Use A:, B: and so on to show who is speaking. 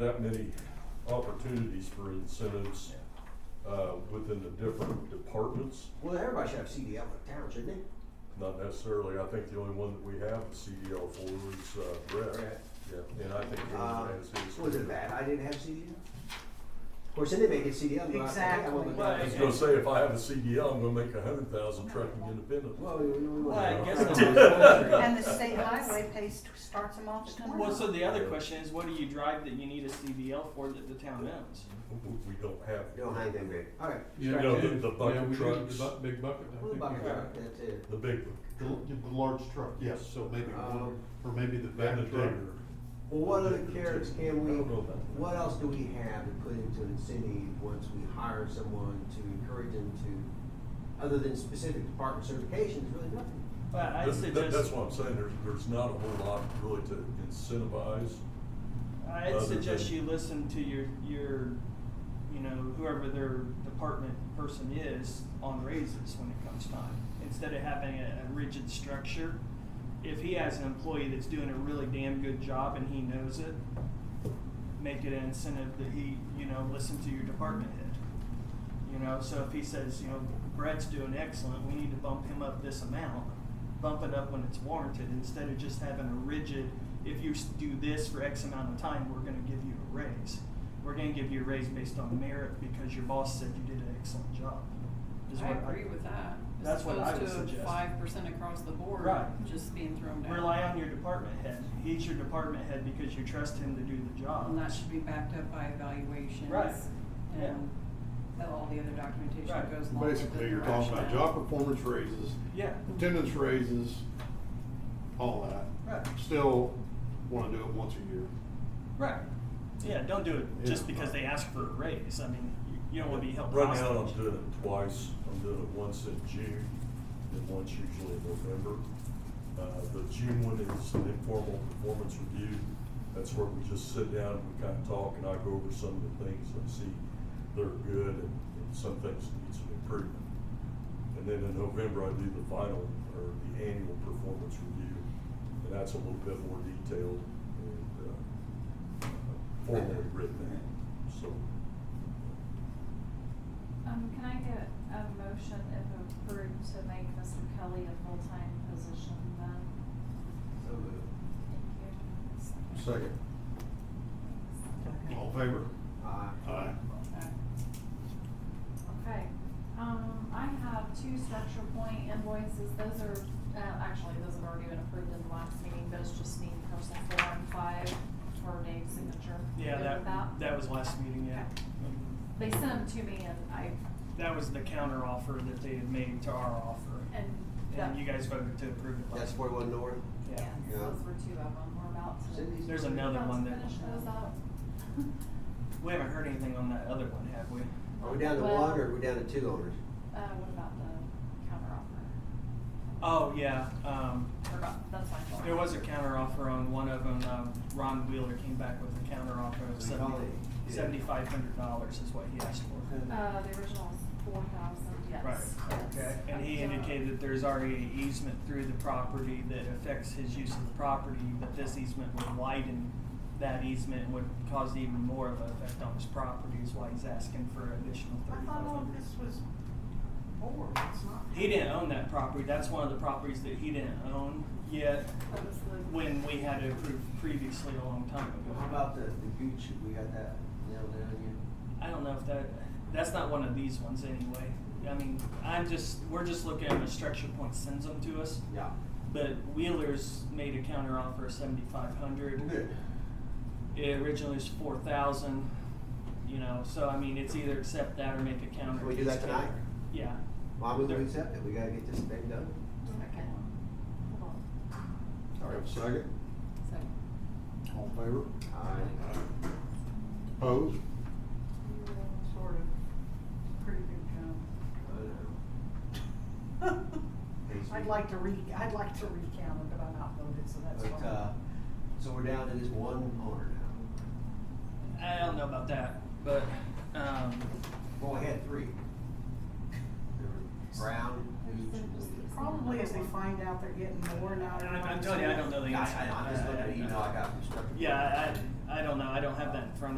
A: that many opportunities for incentives, uh, within the different departments.
B: Well, everybody should have CDL in town, shouldn't they?
A: Not necessarily, I think the only one that we have the CDL for is, uh, Brett.
B: Brett.
A: Yeah, and I think he
B: Uh,
A: has his.
B: Was it that I didn't have CDL? Of course, anybody gets CDL. but I-
C: Exactly.
B: Well, but-
A: I was gonna say, if I have a CDL, I'm gonna make a hundred thousand trucking independent.
B: Well, we- we- we-
D: Well, I guess
B: Well,
D: the other
C: And the state highway pays, starts them off at
D: question- well, so
C: twenty.
D: the other question is, what do you drive that you need a CDL for that the town owns?
A: We don't have. it.
B: Don't hang them there. All right.
E: Yeah,
A: You know,
E: yeah,
A: the- the
E: yeah,
A: bucket
E: we do,
A: trucks.
E: The bu- big bucket. I
B: What
E: think.
B: about
D: yeah.
B: that? That's it.
A: The big one,
F: The, the large truck, yes, so maybe one,
B: Um,
F: or maybe the back
A: and the
F: truck.
A: digger.
B: Well, what other carrots can we,
A: I don't know about that.
B: what else do we have to put into incentive once we hire someone to encourage them to, other than specific department certifications, really nothing.
D: But I
A: That's- that- That's
D: suggest,
A: what I'm saying, there's, there's not a whole lot really to incentivize.
D: I'd
A: other
D: suggest
A: than-
D: you listen to your, your, you know, whoever their department person is on raises when it comes time. Instead of having a, a rigid structure, if he has an employee that's doing a really damn good job and he knows it, make it an incentive that he, you know, listen to your department head. You know, so if he says, you know, Brett's doing excellent, we need to bump him up this amount, bump it up when it's warranted instead of just having a rigid, if you s- do this for X amount of time, we're going to give you a raise. We're going to give you a raise based on merit because your boss said you did an excellent job. is
G: I
D: what
G: agree with that. As
D: That's what I would
G: opposed to
D: suggest.
G: five percent across the board,
D: Right.
G: just being thrown down.
D: Rely on your department head. He's your department head because you trust him to do the job.
G: And that should be backed up by evaluations.
D: Right. Yeah.
G: And all the other documentation
D: Right.
G: that goes along with it.
F: Basically, you're talking about
G: rationale.
F: job performance raises,
D: Yeah.
F: attendance raises, all that.
D: Right.
F: Still wanna do it once a year.
D: Right. Yeah, don't do it just
F: Yeah.
D: because they ask for a raise. I mean, you, you don't want to be held
A: Right
D: hostage.
A: now, I'm doing it twice, I'm doing it once in June, and once usually in November. Uh, the June one is an informal performance review, that's where we just sit down, and we kind of talk, and I go over some of the things I see that are good, and, and some things that need some improvement. And then in November, I do the final, or the annual performance review, and that's a little bit more detailed and, uh, formally written out, so.
H: Um, can I get a motion if approved to make Mr. Kelly a full-time position then?
B: So, uh,
H: Thank you.
F: Second. All in favor?
B: uh,
F: Aye.
G: Okay.
H: Okay, um, I have two structure point invoices, those are, uh, actually, those have already been approved in the last meeting, those just need person four and five for Dave's signature.
D: Yeah,
H: Good
D: that,
H: with that?
D: that was last meeting, yeah. Mm-hmm.
H: They sent them to me and I,
D: That was the counter offer that they had made to our offer.
H: and. that-
D: And you guys voted to approve it.
B: that's
D: last-
B: forty-one north.
H: Yes,
D: Yeah.
B: Yeah.
H: those were two of them, we're about to.
B: Cindy's-
D: There's another
H: about to
D: one that-
H: Finish those up.
D: We haven't heard anything on that other one, have we?
B: Are we down to
H: Well-
B: one or are we down to two owners?
H: Uh, what about the counter offer?
D: Oh, yeah, um,
H: Forgot, that's my fault.
D: there was a counter offer on one of them, um, Ron Wheeler came back with a counter offer of seventy,
B: Really? Yeah.
D: seventy-five hundred dollars is what he asked for.
H: Uh, the original was four thousand, yes. uh,
D: Right,
H: yes.
D: okay, and he indicated that there's already an easement through the property that affects his use of the property, but this easement would widen that easement and would cause even more of an effect on his property, is why he's asking for additional
C: I
D: thirty-five
C: thought all of
D: hundred.
C: this was board, it's not.
D: He didn't own that property, that's one of the properties that he didn't own yet,
H: That was the-
D: when we had it approved previously a long time ago.
B: How about the, the gooch, we got that nailed down
D: I don't know if that, that's not one of these ones anyway. I mean, I'm just, we're just looking at a structure point sends them to us.
B: yet? Yeah.
D: But Wheeler's made a counter offer of seventy five hundred.
B: Good.
D: It originally was four thousand, you know, so I mean, it's either accept that or make a counter.
B: Can we
D: to
B: do
D: his
B: that tonight?
D: counter. Yeah,
B: Why would we accept it? We gotta get this thing done.
H: Okay, hold on.
F: All right, second.
G: So,
F: All in favor?
B: Aye.
F: Opposed?
C: Sort of, pretty
B: I know.
C: good job. I'd like to re, I'd like to recount it, but I'm not voted, so that's
B: But, uh,
C: why.
B: so we're down to this one owner now.
D: I don't know about that, but, um,
B: Well, we had three. There were Brown, Gooch, and-
C: Probably as they find out they're getting more now.
D: I- I'm telling you, I don't know the
B: I,
D: answer.
B: I, I'm just looking at the email I got from Structure.
D: Yeah, I, I don't know, I don't have that in front of me.